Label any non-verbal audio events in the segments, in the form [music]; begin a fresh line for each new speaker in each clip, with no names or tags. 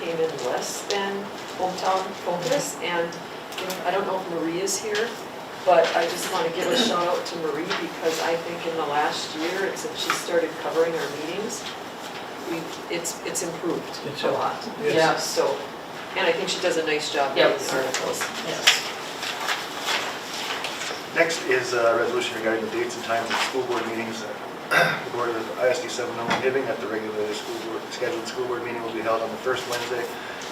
came in less than hometown focus, and you know, I don't know if Maria's here, but I just want to give a shout out to Marie, because I think in the last year, and since she started covering our meetings, we, it's, it's improved
It's
a
up,
lot.
yes.
Yeah, So, and I think she does a nice job
Yep.
with the articles.
Yes.
Next is a resolution regarding the dates and times of school board meetings. The Board of ISD 701 Hibbing oh at the regularly school board, scheduled school board meeting will be held on the first Wednesday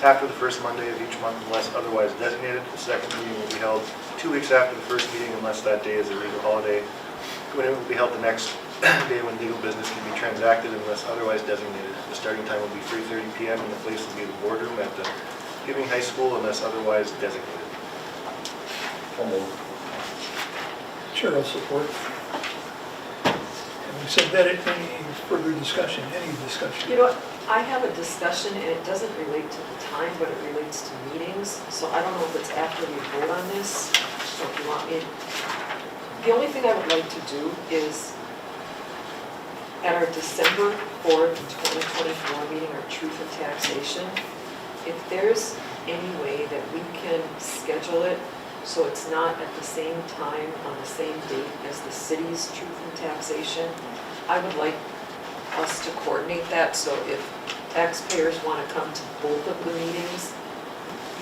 after the first Monday of each month unless otherwise designated. The second meeting will be held two weeks after the first meeting unless that day is a legal holiday. When it will be held the next [clears throat] day when legal business can be transacted unless otherwise designated. The starting time will be 3:30 PM and the place will be the boardroom at the Hibbing High School unless otherwise designated.
Chair will support. Having said that, any further discussion, any
You
discussion?
know, I have a discussion, and it doesn't relate to the time, but it relates to meetings, so I don't know if it's after we vote on this, or if you want me. The only thing I would like to do is, at our December 4th, 2024 meeting, our truth and taxation, if there's any way that we can schedule it so it's not at the same time, on the same date as the city's truth and taxation, I would like us to coordinate that, so if taxpayers want to come to both of the meetings,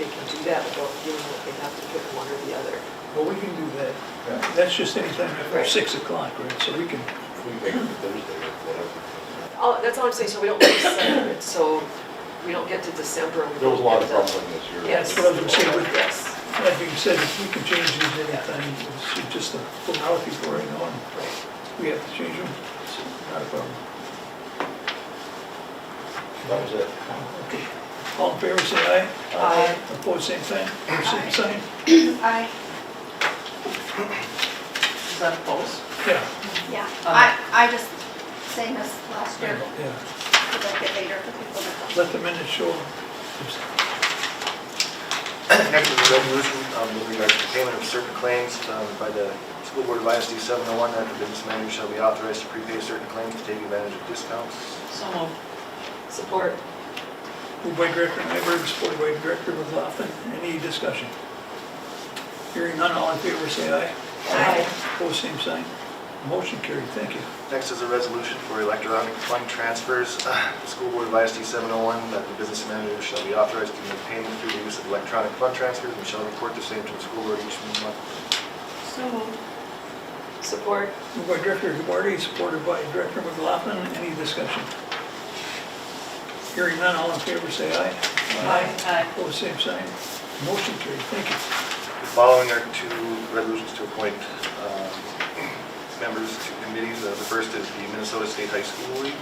they can do that without feeling that they have to pick one or the other.
Well, we can do that. That's just anytime after
Right.
6 o'clock, right? So we can,
If we make it Thursday, whatever.
Oh, that's all I'm saying, so we don't lose sight of it, so we don't get to December and we
There was a lot of
don't get
grumbling this year.
Yes.
Well, I'm saying with-
Yes.
that being said, if we can change these anytime, it's just a formality for right now, and
Right.
we have to change them. It's Not a problem.
That was it.
Okay. All in favor, say aye.
Uh,
Aye.
Opposed, same sign. Same sign.
I,
Is that both?
Yeah.
yeah, I, I just, same as last year,
Yeah.
because I get later for people to
Let the minutes show.
Next is a resolution um, with regard to payment of certain claims um, by the School Board of ISD 701, that the business manager shall be authorized to prepay certain claims to take advantage of discounts.
So moved.
Support.
Moved by Director Nyberg, supported by Director McLaughlin. Any discussion? Hearing none, all in favor, say aye.
Aye.
Opposed, same sign. Motion carried, thank you.
Next is a resolution for electronic fund transfers. [sighs] The School Board of ISD 701, that the business manager shall be authorized to make payment through the use of electronic fund transfers and shall report the same to the school board each month.
So moved.
Support.
Moved by Director Duarte, supported by Director McLaughlin. Any discussion? Hearing none, all in favor, say aye.
Aye.
Opposed, same sign. Motion carried, thank you.
The following are two resolutions to appoint um, members to committees. Uh, The first is the Minnesota State High School League.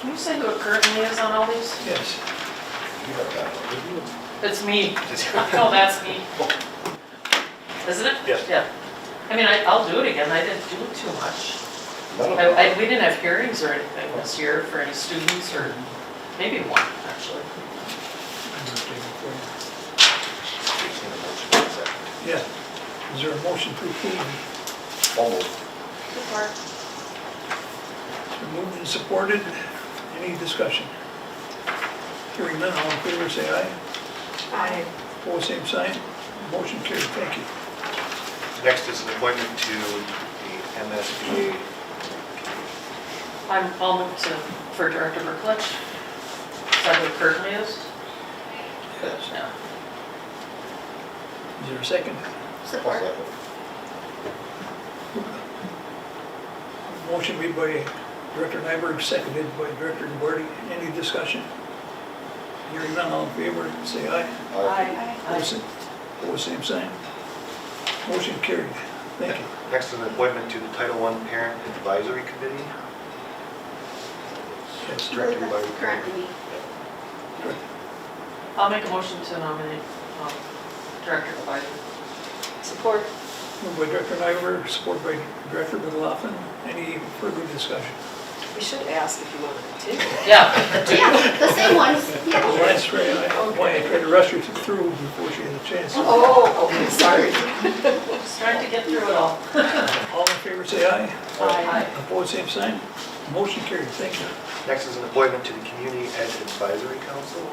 Can you say who it currently is on all these?
Yes.
You got that one, didn't you?
It's me. No, that's me. Isn't it?
Yes.
Yeah. I mean, I, I'll do it again. I didn't do too much.
None of them.
I, I, we didn't have hearings or anything this year for any students or maybe one, actually.
We've seen a motion in a second.
Yeah. Is there a motion to approve?
Almost.
support.
It's been moved and supported. Any discussion? Hearing none, all in favor, say aye.
Aye.
Opposed, same sign. Motion carried, thank you.
Next is an appointment to the MSBA.
I'm, I'll move to, for Director Berklich. Is that who it currently is?
Yes.
Yeah.
Is there a second?
Support.
Motion made by Director Nyberg, seconded by Director Duarte. Any discussion? Hearing none, all in favor, say aye.
Aye.
I,
Opposed, same- Opposed, same sign. Motion carried, thank you.
Next is an appointment to the Title I Parent Advisory Committee.
Yes.
Directed by the
currently me.
I'll make a motion to nominate, um, Director Biden.
Support.
Moved by Director Nyberg, supported by Director McLaughlin. Any further discussion?
We should ask if you want to continue.
Yeah. [laughs]
Yeah, the same ones, yeah.
Well, that's right, I wanted to try to rush her through before she had a chance. All
Oh, okay, sorry.
Just trying to get through it all.
in favor, say aye.
Aye.
Opposed, same sign. Motion carried, thank you.
Next is an appointment to the Community Ed Advisory Council.